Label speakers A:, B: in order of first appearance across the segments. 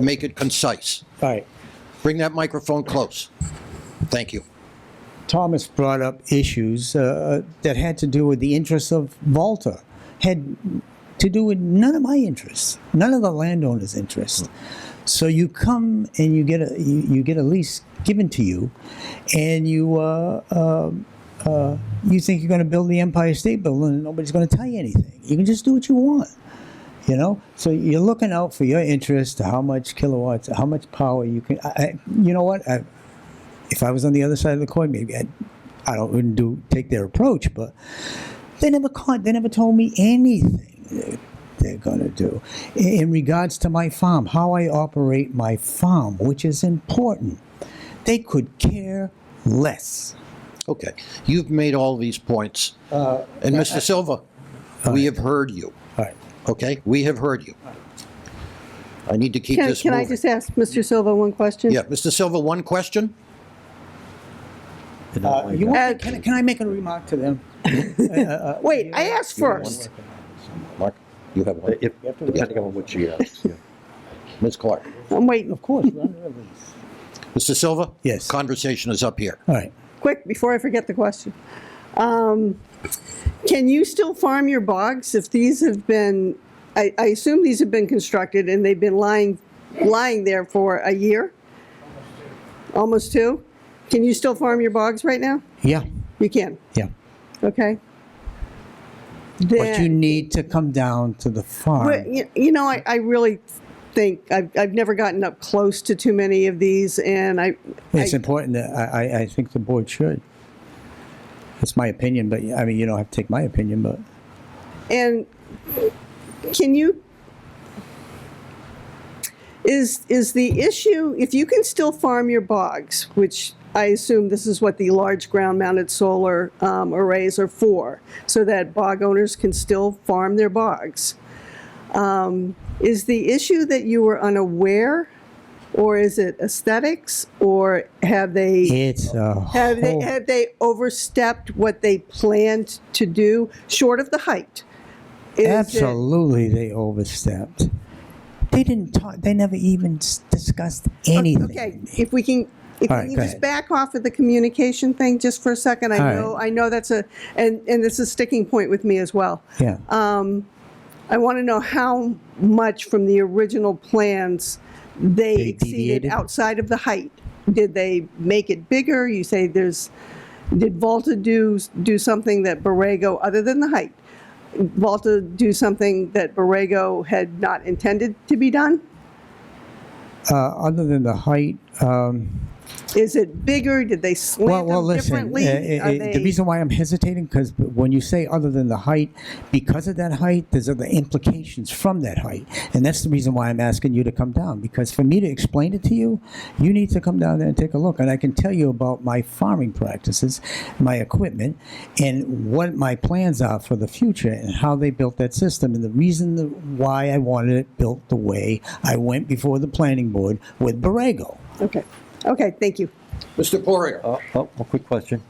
A: Make it concise.
B: All right.
A: Bring that microphone close. Thank you.
B: Thomas brought up issues uh, that had to do with the interests of Volta, had to do with none of my interests, none of the landowner's interests. So you come and you get a you, you get a lease given to you, and you uh, uh, uh, you think you're going to build the Empire State Building, and nobody's going to tell you anything. You can just do what you want. You know, so you're looking out for your interest, how much kilowatts, how much power you can. I, I, you know what? I, if I was on the other side of the coin, maybe I'd, I don't wouldn't do take their approach. But they never con- they never told me anything they- they're going to do in in regards to my farm, how I operate my farm, which is important. They could care less.
A: Okay. You've made all these points. And Mr. Silva, we have heard you,
B: All right.
A: okay? We have heard you. I need to keep
C: Can,
A: this
C: can I
A: moving.
C: just ask Mr. Silva one question?
A: Yeah, Mr. Silva, one question?
B: Uh, you
C: that.
B: want, can, can I make a remark to them?
C: Wait, I asked first.
A: Mark, you have one.
D: If- Depending on what she asks, yeah.
A: Ms. Clark.
C: I'm waiting,
B: Of course.
A: Mr. Silva?
B: Yes.
A: Conversation is up here.
B: All right.
C: quick, before I forget the question. Um, Can you still farm your bogs if these have been, I, I assume these have been constructed and they've been lying, lying there for a year? Almost two? Can you still farm your bogs right now?
B: Yeah.
C: You can,
B: Yeah.
C: okay?
B: But you
C: Then-
B: need to come down to the farm.
C: Well, y- you know, I, I really think I've, I've never gotten up close to too many of these, and I,
B: It's
C: I-
B: important that I, I, I think the board should. It's my opinion, but I mean, you don't have to take my opinion, but
C: and can you? Is is the issue if you can still farm your bogs, which I assume this is what the large ground-mounted solar um, arrays are for, so that bog owners can still farm their bogs. Um, is the issue that you were unaware, or is it aesthetics, or have they?
B: it's a
C: Have they,
B: whole,
C: have they overstepped what they planned to do, short of the height? Is it-
B: absolutely they overstepped. They didn't talk, they never even s- discussed anything.
C: Okay, if we can, if
B: All right,
C: we can
B: go
C: just
B: ahead.
C: back off of the communication thing just for a second, I
B: All right.
C: know, I know that's a, and, and this is a sticking point with me as well.
B: Yeah.
C: Uh, I want to know how much from the original plans they
B: They
C: exceeded
B: deviated?
C: outside of the height. Did they make it bigger? You say there's, did Volta do, do something that Borrego, other than the height? Volta do something that Borrego had not intended to be done?
B: uh, other than the height, um,
C: Is it bigger? Did they
B: well,
C: slant
B: well,
C: them
B: listen, uh,
C: differently?
B: uh,
C: Are
B: the
C: they-
B: reason why I'm hesitating because when you say other than the height, because of that height, there's other implications from that height. And that's the reason why I'm asking you to come down because for me to explain it to you, you need to come down there and take a look. And I can tell you about my farming practices, my equipment, and what my plans are for the future and how they built that system. And the reason the, why I wanted it built the way I went before the planning board with Borrego.
C: Okay, okay, thank you.
A: Mr. Poirier,
D: Uh, Oh, a quick question.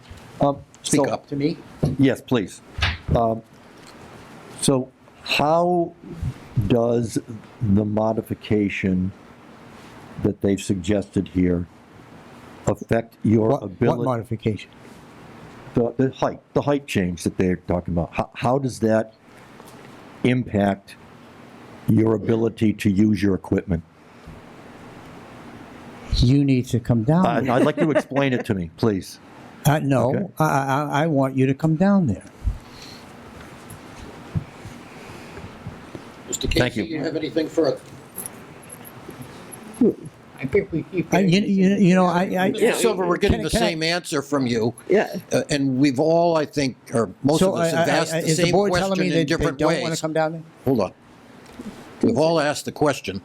D: Um,
A: speak
D: so-
A: up. To me?
D: Yes, please. Um, So how does the modification that they've suggested here affect your
B: What, what
D: ability?
B: modification?
D: the, the height, the height change that they're talking about, how, how does that impact your ability to use your equipment?
B: You need to come down.
D: I- Uh, I'd like you to explain it to me, please.
B: Uh, no,
D: Okay.
B: I, I, I- I want you to come down there.
A: Mr.
D: Thank
A: Casey,
D: you.
A: you have anything further?
E: I think we keep.
B: I, you, you, you know, I, I
A: Mr. Silva, we're getting
B: Can
A: the
B: I- can I-
A: same answer from you.
C: Yeah.
A: Uh, And we've all, I think, or most
B: so
A: of
B: I,
A: us have
B: I-
A: asked
B: I-
A: the
B: is the
A: same
B: board telling
A: question
B: me they,
A: in
B: they
A: different
B: don't want to
A: ways.
B: come down there?
A: Hold on. We've all asked the question.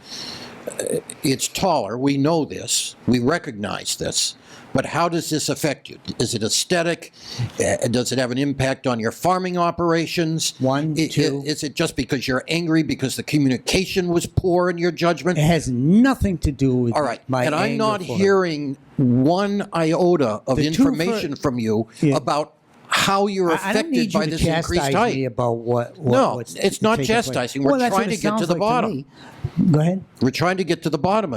A: Uh, It's taller, we know this, we recognize this, but how does this affect you? Is it aesthetic? Uh, Does it have an impact on your farming operations?
B: One,
A: I- i-
B: two.
A: Is it just because you're angry because the communication was poor in your judgment?
B: It has nothing to do with
A: All right,
B: my
A: and I'm
B: anger
A: not
B: for her.
A: hearing one iota of
B: The two fir-
A: information from you
B: Yeah.
A: about how you're
B: I- I don't
A: affected
B: need you
A: by
B: to
A: this
B: chastise
A: increased height.
B: me about what, what
A: No,
B: what's
A: it's not
B: taking place.
A: chastising. We're
B: Well, that's what
A: trying
B: it
A: to get to
B: sounds
A: the
B: like
A: bottom.
B: me. Go ahead.
A: We're trying to get to the bottom of